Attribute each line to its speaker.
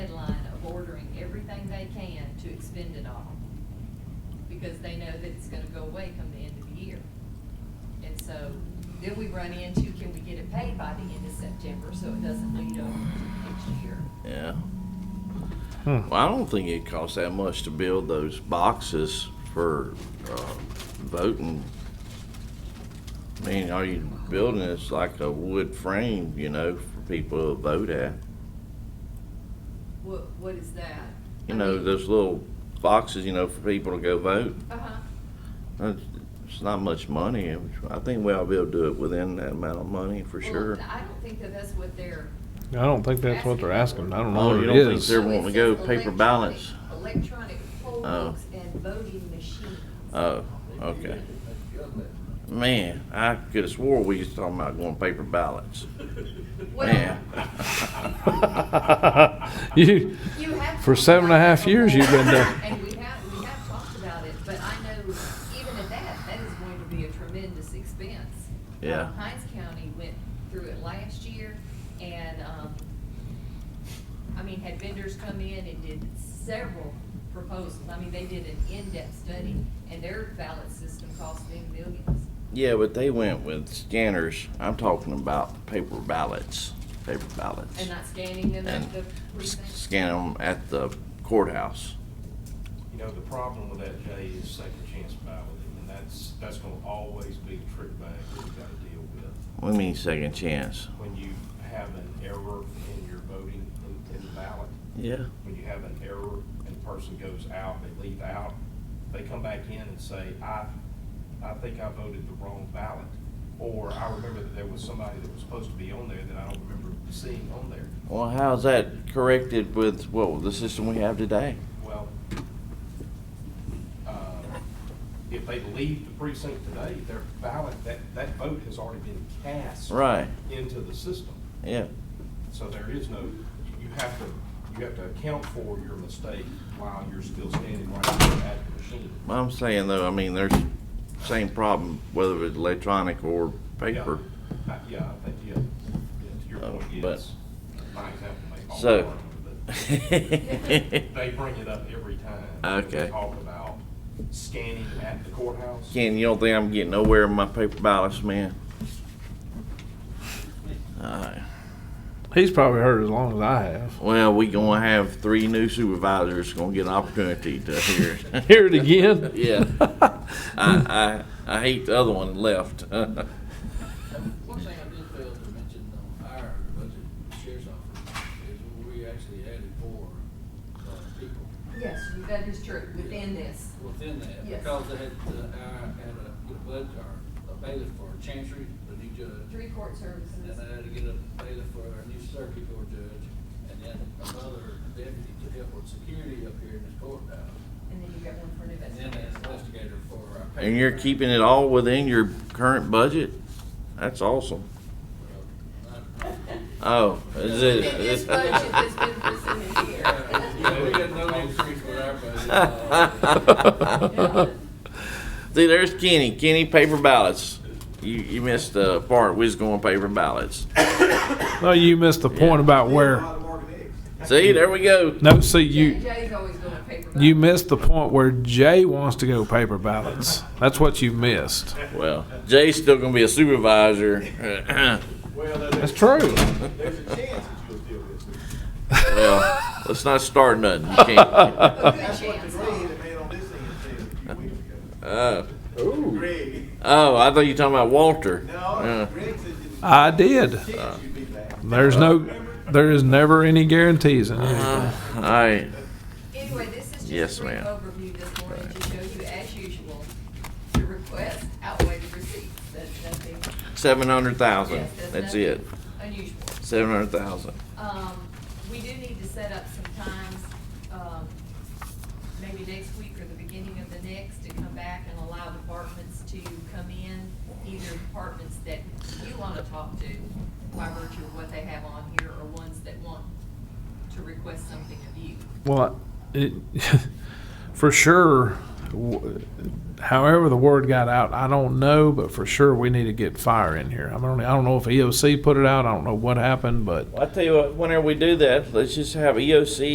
Speaker 1: they can to expend it all. Because they know that it's gonna go away come the end of the year. And so then we run into, can we get it paid by the end of September so it doesn't lead over to next year?
Speaker 2: Yeah.
Speaker 3: Hmm.
Speaker 2: Well, I don't think it costs that much to build those boxes for uh, voting. I mean, all you building is like a wood frame, you know, for people to vote at.
Speaker 1: What, what is that?
Speaker 2: You
Speaker 1: I
Speaker 2: know,
Speaker 1: mean-
Speaker 2: those little boxes, you know, for people to go vote.
Speaker 1: Uh-huh,
Speaker 2: That's- It's not much money. I think we'll be able to do it within that amount of money for
Speaker 1: Well,
Speaker 2: sure.
Speaker 1: I don't think that that's what they're.
Speaker 3: I don't think that's what they're asking. I don't know
Speaker 2: Oh,
Speaker 3: what
Speaker 2: you
Speaker 3: it
Speaker 2: don't think
Speaker 3: is.
Speaker 2: They're wanting to go
Speaker 1: It says
Speaker 2: paper
Speaker 1: electronic-
Speaker 2: ballots.
Speaker 1: Electronic poll
Speaker 2: Oh.
Speaker 1: books and voting machines.
Speaker 2: Oh, okay. Man, I could have swore we was talking about going paper ballots.
Speaker 1: Well,
Speaker 2: Man.
Speaker 3: You,
Speaker 1: you have.
Speaker 3: For
Speaker 1: talked
Speaker 3: seven and a
Speaker 1: about it
Speaker 3: half years, you've been
Speaker 1: before,
Speaker 3: there.
Speaker 1: And we have, we have talked about it, but I know even at that, that is going to be a tremendous expense.
Speaker 2: Yeah.
Speaker 1: Uh, Hines County went through it last year and, um, I mean, had vendors come in and did several proposals. I mean, they did an in-depth study and their ballot system cost them millions.
Speaker 2: Yeah, but they went with scanners. I'm talking about paper ballots, paper ballots.
Speaker 1: And not scanning them
Speaker 2: And
Speaker 1: at the
Speaker 2: s-
Speaker 1: precinct?
Speaker 2: scan them at the courthouse.
Speaker 4: You know, the problem with that, Jay, is second chance ballot, and that's, that's gonna always be the trick bag that we gotta deal with.
Speaker 2: What do you mean second chance?
Speaker 4: When you have an error in your voting in, in the ballot,
Speaker 2: Yeah.
Speaker 4: when you have an error and the person goes out, they leave out, they come back in and say, I, I think I voted the wrong ballot. Or I remember that there was somebody that was supposed to be on there that I don't remember seeing on there.
Speaker 2: Well, how's that corrected with, well, the system we have today?
Speaker 4: Well, uh, if they leave the precinct today, their ballot, that, that vote has already been cast.
Speaker 2: Right,
Speaker 4: Into the system.
Speaker 2: yeah.
Speaker 4: So there is no, you have to, you have to account for your mistake while you're still standing right there at the machine.
Speaker 2: Well, I'm saying though, I mean, there's same problem whether it's electronic or paper.
Speaker 4: Yeah, I- Yeah, I think, yeah, yeah, to your
Speaker 2: Oh,
Speaker 4: point,
Speaker 2: but-
Speaker 4: yes. My example may fall
Speaker 2: So-
Speaker 4: apart, but They bring it up every time.
Speaker 2: Okay.
Speaker 4: They Talk about scanning at the courthouse.
Speaker 2: Ken, you don't think I'm getting nowhere in my paper ballots, man? Alright,
Speaker 3: he's probably heard as long as I have.
Speaker 2: well, we gonna have three new supervisors gonna get an opportunity to hear. it.
Speaker 3: Hear it again?
Speaker 2: Yeah, I, I, I hate the other one left.
Speaker 5: One thing I did fail to mention on our budget sheriff's office is we actually added four uh, people
Speaker 1: Yes, that is true, within this.
Speaker 5: within that.
Speaker 1: Yes.
Speaker 5: Because they had, uh, our, had a, get a bud, or a bailiff for chancery, the new judge.
Speaker 1: Three court
Speaker 5: And then
Speaker 1: services.
Speaker 5: I had to get a bailiff for our new circuit court judge, and then another deputy to help with security up here in this courthouse.
Speaker 1: And then you got one for an
Speaker 5: And then an
Speaker 1: investigator.
Speaker 5: investigator for our.
Speaker 2: And you're
Speaker 5: paper.
Speaker 2: keeping it all within your current budget? That's awesome.
Speaker 5: Well, I-
Speaker 2: Oh, is it?
Speaker 1: This budget has been presented
Speaker 5: Yeah, we
Speaker 1: here.
Speaker 5: got no increase with our budget. Uh,
Speaker 2: See, there's Kenny. Kenny, paper ballots. You, you missed the part. We was going paper ballots.
Speaker 3: No, you missed the point about where.
Speaker 2: See, there we go.
Speaker 3: No, see, you
Speaker 1: Jay's always going paper.
Speaker 3: you
Speaker 1: ballots.
Speaker 3: missed the point where Jay wants to go paper ballots. That's what you missed.
Speaker 2: Well, Jay's still gonna be a supervisor. Uh,
Speaker 6: Well, there-
Speaker 3: That's
Speaker 6: there's,
Speaker 3: true.
Speaker 6: there's a chance that you'll deal with it.
Speaker 2: well, let's not start nothing. You can't.
Speaker 1: A good
Speaker 6: That's what the
Speaker 1: chance.
Speaker 6: Greg, the man on this end, said a few weeks ago.
Speaker 2: Oh.
Speaker 6: Greg,
Speaker 2: oh, I thought you were talking about Walter. Uh,
Speaker 6: no, Greg said there's a
Speaker 3: I did.
Speaker 6: chance you'd be back.
Speaker 3: There's no, there is never any guarantees in anything.
Speaker 2: uh, all right.
Speaker 1: Anyway, this is
Speaker 2: Yes,
Speaker 1: just a brief
Speaker 2: ma'am.
Speaker 1: overview this morning to show you, as usual, the request outweigh the receipts. That's nothing.
Speaker 2: Seven hundred thousand.
Speaker 1: yes, there's
Speaker 2: That's
Speaker 1: nothing
Speaker 2: it.
Speaker 1: Unusual.
Speaker 2: Seven hundred thousand.
Speaker 1: Um, we do need to set up some times, um, maybe next week or the beginning of the next, to come back and allow departments to come in, either departments that you wanna talk to by virtue of what they have on here, or ones that want to request something of you.
Speaker 3: Well, it, for sure, w- however the word got out, I don't know, but for sure we need to get fire in here. I don't, I don't know if E EOC put it out. I don't know what happened, but
Speaker 2: Well, I tell you what. Whenever we do that, let's just have E EOC